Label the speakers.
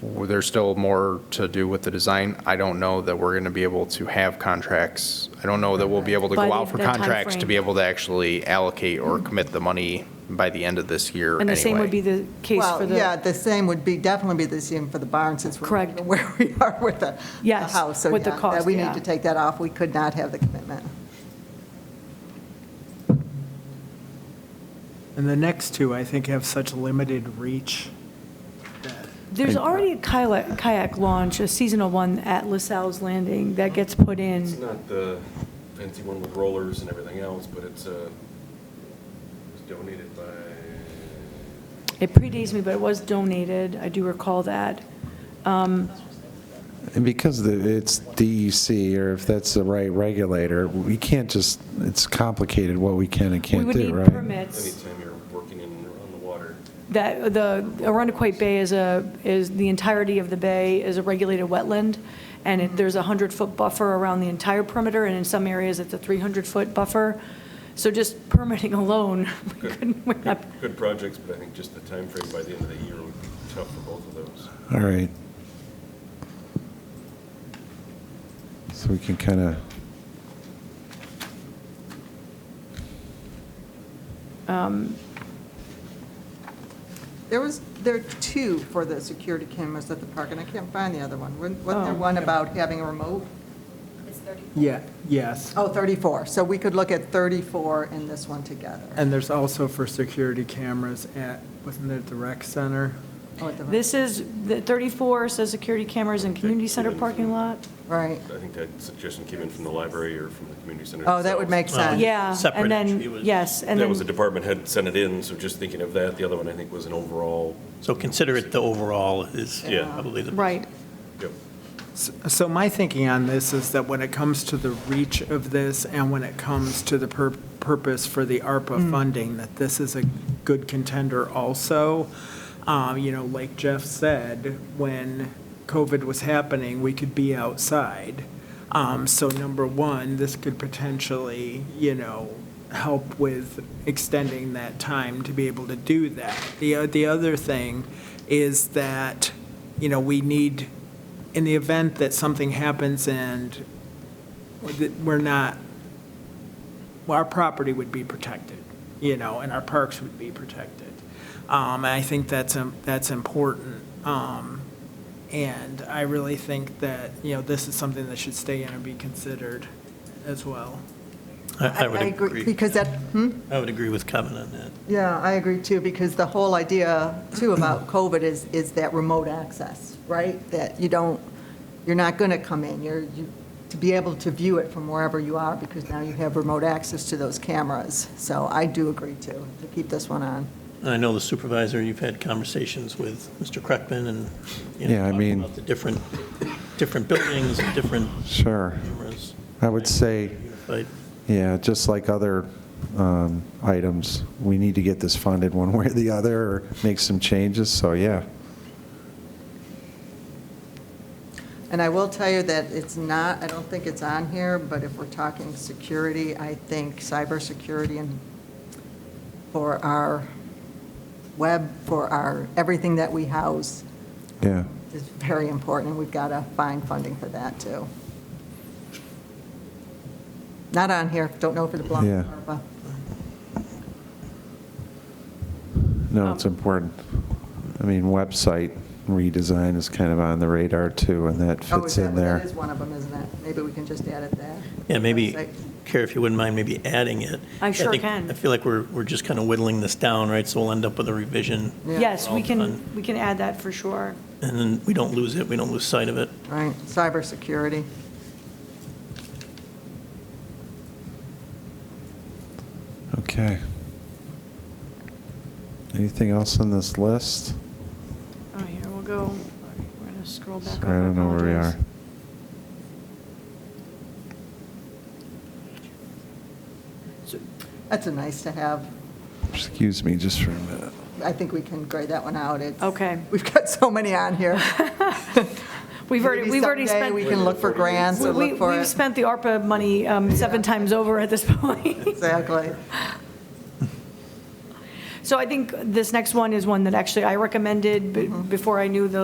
Speaker 1: Well, There's still more to do with the design. I don't know that we're going to be able to have contracts. I don't know that we'll be able to
Speaker 2: By
Speaker 1: go
Speaker 2: the-
Speaker 1: out for
Speaker 2: the
Speaker 1: contracts to
Speaker 2: timeframe.
Speaker 1: be able to actually allocate or commit the money by the end of this year
Speaker 2: And the same would be
Speaker 1: anyway.
Speaker 2: the case for
Speaker 3: Well, yeah,
Speaker 2: the,
Speaker 3: the same would be, definitely be the same for the barn, since we're
Speaker 2: Correct.
Speaker 3: not even where we are with the the
Speaker 2: Yes,
Speaker 3: house. So,
Speaker 2: with the
Speaker 3: yeah, that
Speaker 2: cost,
Speaker 3: We
Speaker 2: yeah.
Speaker 3: need to take that off, we could not have the commitment.
Speaker 4: And the next two, I think, have such limited reach that
Speaker 2: there's already a kayak, kayak launch, a seasonal one at LaSalle's Landing that gets put
Speaker 5: It's
Speaker 2: in.
Speaker 5: not the fancy one with rollers and everything else, but it's, uh, it was donated by,
Speaker 2: It predates me, but it was donated, I do recall that. Um,
Speaker 6: And because the- it's DEC, or if that's the right regulator, we can't just, it's complicated what we can and
Speaker 2: We
Speaker 6: can't
Speaker 2: would
Speaker 6: do,
Speaker 2: need
Speaker 6: right?
Speaker 2: permits.
Speaker 5: anytime you're working in, on the water.
Speaker 2: That, the Arundequoit Bay is a, is, the entirety of the bay is a regulated wetland, and it- there's a 100-foot buffer around the entire perimeter, and in some areas, it's a 300-foot buffer. So just permitting alone, we couldn't, we're not
Speaker 5: Good projects, but I think just the time frame by the end of the year would be tough for both of those.
Speaker 6: All right. So we can kind of,
Speaker 2: um,
Speaker 3: There was, there are two for the security cameras at the park, and I can't find the other one. Wasn't wasn't there
Speaker 2: Oh.
Speaker 3: one about having a remote?
Speaker 4: Yeah, yes.
Speaker 3: Oh, 34, so we could look at 34 and this one together.
Speaker 4: And there's also for security cameras at, wasn't it the rec center?
Speaker 3: Oh, at the-
Speaker 2: This is, the 34 says security cameras in community center parking lot.
Speaker 3: Right,
Speaker 5: I think that suggestion came in from the library or from the community center.
Speaker 3: oh, that would
Speaker 5: itself.
Speaker 3: make sense.
Speaker 2: Yeah,
Speaker 7: Separate,
Speaker 2: and
Speaker 7: it was-
Speaker 2: then, yes, and
Speaker 5: That was a
Speaker 2: then,
Speaker 5: department head sent it in, so just thinking of that, the other one I think was an overall,
Speaker 7: So consider it the overall is
Speaker 5: Yeah.
Speaker 7: probably the.
Speaker 2: right,
Speaker 5: yep.
Speaker 4: S- So my thinking on this is that when it comes to the reach of this and when it comes to the pur- purpose for the ARPA funding, that this is a good contender also. Um, You know, like Jeff said, when COVID was happening, we could be outside. Um, So number one, this could potentially, you know, help with extending that time to be able to do that. The, o- the other thing is that, you know, we need, in the event that something happens and that we're not, well, our property would be protected, you know, and our parks would be protected. Um, and I think that's, im- that's important. Um, and I really think that, you know, this is something that should stay in and be considered as well.
Speaker 7: I I would agree.
Speaker 3: Because that, hmm?
Speaker 7: I would agree with Kevin on that.
Speaker 3: Yeah, I agree too, because the whole idea too about COVID is, is that remote access, right? That you don't, you're not going to come in, you're, you- to be able to view it from wherever you are, because now you have remote access to those cameras. So I do agree too, to keep this one on.
Speaker 7: And I know the supervisor, you've had conversations with Mr. Kreckman and, you know.
Speaker 6: Yeah, I
Speaker 7: talked
Speaker 6: mean-
Speaker 7: About the different, different buildings and different
Speaker 6: sure.
Speaker 7: cameras.
Speaker 6: I would say,
Speaker 7: But
Speaker 6: yeah, just like other um, items, we need to get this funded one way or the other, or make some changes, so yeah.
Speaker 3: And I will tell you that it's not, I don't think it's on here, but if we're talking security, I think cybersecurity and for our web, for our, everything that we house,
Speaker 6: Yeah,
Speaker 3: is very important, and we've got to find funding for that, too. Not on here, don't know if it belongs
Speaker 6: Yeah.
Speaker 3: to ARPA.
Speaker 6: no,
Speaker 3: Um,
Speaker 6: it's important. I mean, website redesign is kind of on the radar too, and that
Speaker 3: Oh, is
Speaker 6: fits
Speaker 3: that-
Speaker 6: in there.
Speaker 3: That is one of them, isn't it? Maybe we can just add it there.
Speaker 7: Yeah, maybe,
Speaker 3: Website.
Speaker 7: Kara, if you wouldn't mind maybe adding it.
Speaker 2: I sure
Speaker 7: think-
Speaker 2: can.
Speaker 7: I feel like we're, we're just kind of whittling this down, right? So we'll end up with a revision,
Speaker 3: Yeah.
Speaker 2: yes, we
Speaker 7: Well
Speaker 2: can, we can add that for sure.
Speaker 7: and then we don't lose it, we don't lose sight of it.
Speaker 3: Right, cybersecurity.
Speaker 6: Okay. Anything else on this list?
Speaker 2: Oh, here, we'll go, we're going to scroll back up.
Speaker 6: Sorry, I don't know where we
Speaker 2: apologize.
Speaker 6: are.
Speaker 3: That's a nice to have.
Speaker 6: Excuse me just for a minute.
Speaker 3: I think we can grade that one out. It's-
Speaker 2: Okay.
Speaker 3: We've got so many on here.
Speaker 2: We've already,
Speaker 3: Maybe
Speaker 2: we've already
Speaker 3: someday
Speaker 2: spent,
Speaker 3: we can look for grants or
Speaker 2: we,
Speaker 3: look for
Speaker 2: we've
Speaker 3: it.
Speaker 2: spent the ARPA money um, seven times over at this point.
Speaker 3: Exactly.
Speaker 2: Mm-hmm. So I think this next one is one that actually I recommended b- before I knew the